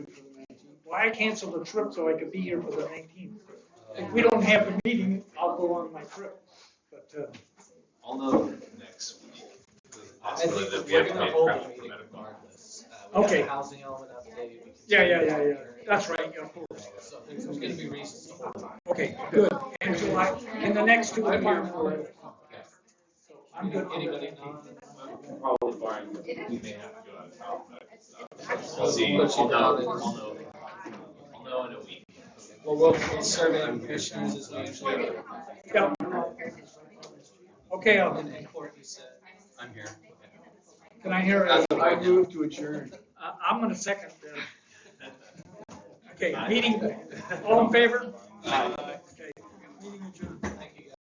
why cancel the trip so I could be here for the nineteenth? If Uh, we don't have a meeting, I'll go on my trip, but, uh, I'll know next week. I Possibly that think we we're have to gonna pay hold prep the for meeting medical. regardless. Uh, we have Okay. a Housing element update. we can- yeah, yeah, yeah, yeah, that's right, yeah, of course. So there's there's gonna be reasons to hold. it. Okay, good, and July, and the next two My are here department for will- it. okay. I'm good. Anybody? Probably fine. We may have to go out of town, but uh, we'll But see. you I'll know, know I'll that- know, I'll know in a week. Well, we'll, we'll survey the commissioners as we usually do. Yeah. Okay, I'll- And then Courtney said. I'm here. can I hear, That's a- what I do. move to adjourn. I- I'm gonna second. uh, Okay, meeting, all in favor? Bye.